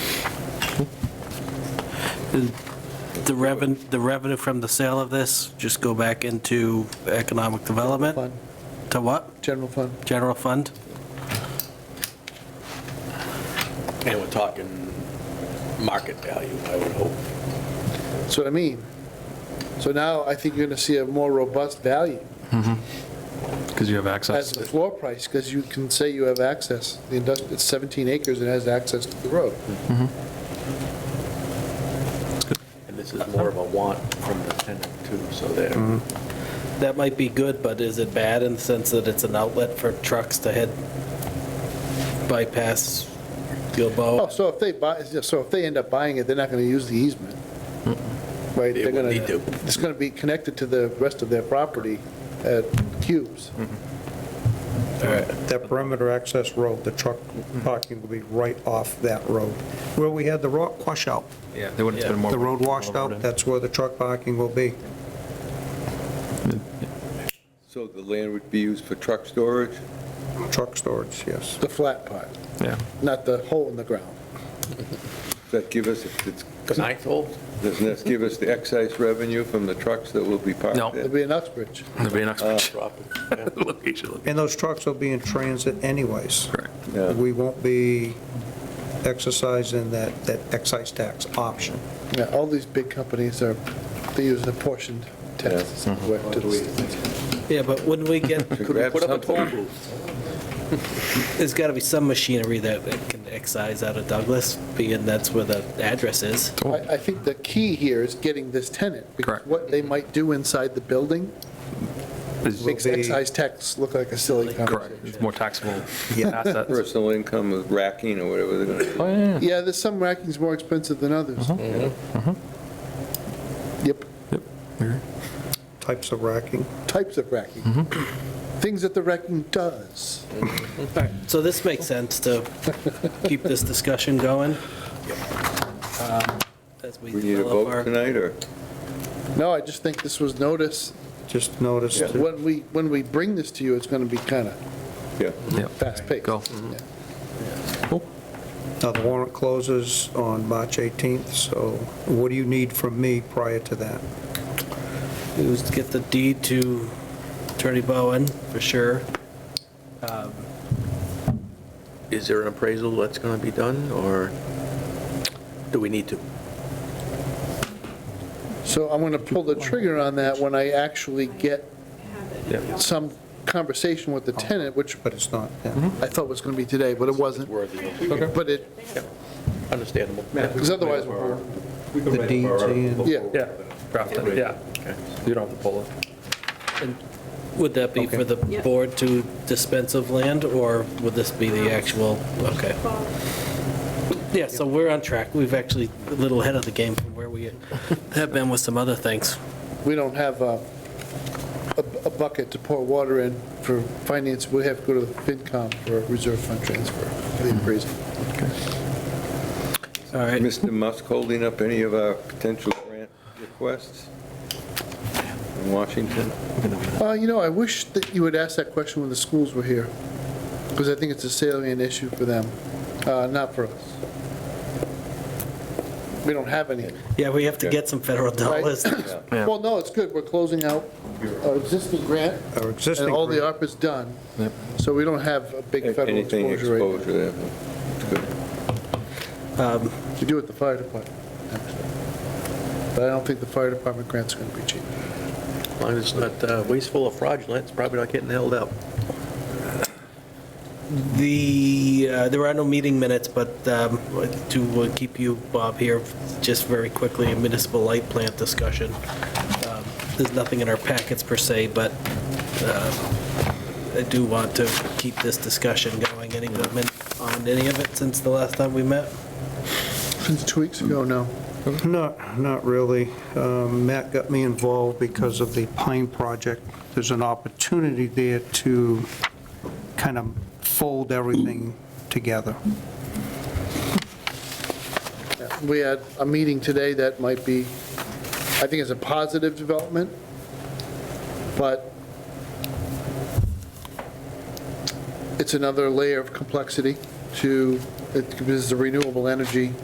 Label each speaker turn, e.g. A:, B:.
A: The revenue, the revenue from the sale of this, just go back into economic development?
B: Fund,
A: To what?
B: general fund.
A: General fund?
C: And we're talking market value, I would hope.
B: That's what I mean. So now I think you're going to see a more robust value
D: Because you have
B: as
D: access.
B: the floor price, because you can say you have access. The industrial, it's 17 acres and has access to the road.
C: And this is more of a want from the tenant too, so there.
A: That might be good, but is it bad in the sense that it's an outlet for trucks to head bypass
B: Oh,
A: Gilboa?
B: so if they buy, so if they end up buying it, they're not going to use the easement, right?
C: They
B: They're
C: would
B: gonna-
C: need to.
B: It's going to be connected to the rest of their property at cubes.
C: Mm.
E: That perimeter access road, the truck parking will be right off that road. Where we had the rock washout,
D: Yeah, they wouldn't spend more.
E: the road washed out, that's where the truck parking will be.
F: So the land would be used for truck storage?
E: Truck storage, yes.
B: The flat part,
D: Yeah,
B: not the hole in the ground.
F: Does that give us, if it's-
C: Ninth hole?
F: does this give us the excise revenue from the trucks that will be parked
D: No.
F: there?
B: It'll be in Uxbridge.
D: that'd be an extra
C: Property, yeah.
D: location.
E: And those trucks will be in transit anyways.
F: Yeah.
E: We won't be exercising that, that excise tax option.
B: Yeah, all these big companies are, they use apportioned taxes.
C: Mm-hmm.
B: Where to the-
A: Yeah, but wouldn't we get,
C: Could we
F: Grab
C: put up a
F: something.
C: toll booth?
A: there's got to be some machinery that can excise out of Douglas, being that's where the address is.
B: I I think the key here is getting this tenant. because
D: Correct.
B: What they might do inside the building makes
E: Will be-
B: excise tax look like a silly
D: Correct,
B: conversation.
D: it's more taxable
E: Yeah.
D: assets.
F: Personal income of racking or whatever they're going to do.
D: Oh, yeah, yeah.
B: Yeah, there's some racking's more expensive than others. Yep,
E: Types of racking.
B: types of racking. Things that the racking does.
A: All right, so this makes sense to keep this discussion going. um, As we
F: We need a
A: develop
F: vote
A: our,
F: tonight, or?
B: No, I just think this was notice.
E: Just noticed, that-
B: When we, when we bring this to you, it's going to be kind of
F: Yeah.
D: Yeah.
B: fast paced.
D: Go.
E: now uh, the warrant closes on March 18th, so what do you need from me prior to that?
A: it was to get the deed to Attorney Bowen, for sure. Um,
C: Is there an appraisal that's going to be done, or do we need to?
B: So I'm going to pull the trigger on that when I actually get some conversation with the tenant, which
E: But it's not, uh, yeah.
B: I thought was going to be today, but it wasn't.
C: Worthy,
B: But it,
C: understandable.
B: because otherwise, we're-
E: The deeds and,
B: yeah.
D: Yeah, draft it, yeah. You don't have to pull it.
A: Would that be for the board to dispense of land, or would this be the actual, okay? Yeah, so we're on track. We've actually a little ahead of the game from where we have been with some other things.
B: we don't have uh, a a bucket to pour water in for finance, we have to go to the FinCom for a reserve fund transfer, for the appraisal.
A: All right.
F: Mr. Musk holding up any of our potential grant requests in Washington?
B: Uh, You know, I wish that you would ask that question when the schools were here, because I think it's a salient issue for them, uh, not for us. We don't have any.
A: Yeah, we have to get some federal dollars.
D: Yeah.
B: Well, no, it's good, we're closing out our existing grant,
E: our existing.
B: and all the
E: grant.
B: ARPA's done,
D: Yep.
B: so we don't have a big federal
F: Anything
B: exposure right now.
F: exposure there? Good.
A: Um,
B: We do at the fire department, actually. But I don't think the fire department grant's going to be cheap.
C: As long as it's not uh, wasteful or fraudulent, it's probably not getting held up.
A: The, uh, there are no meeting minutes, but um, to uh, keep you, Bob, here, just very quickly, a municipal light plant discussion. Um, There's nothing in our packets per se, but um, I do want to keep this discussion going. Any movement on any of it since the last time we met?
B: Since two weeks ago, no.
E: Not, not really. Um, Matt got me involved because of the Pine Project. There's an opportunity there to kind of fold everything together.
B: We had a meeting today that might be, I think it's a positive development, but it's another layer of complexity to, it- because it's a renewable energy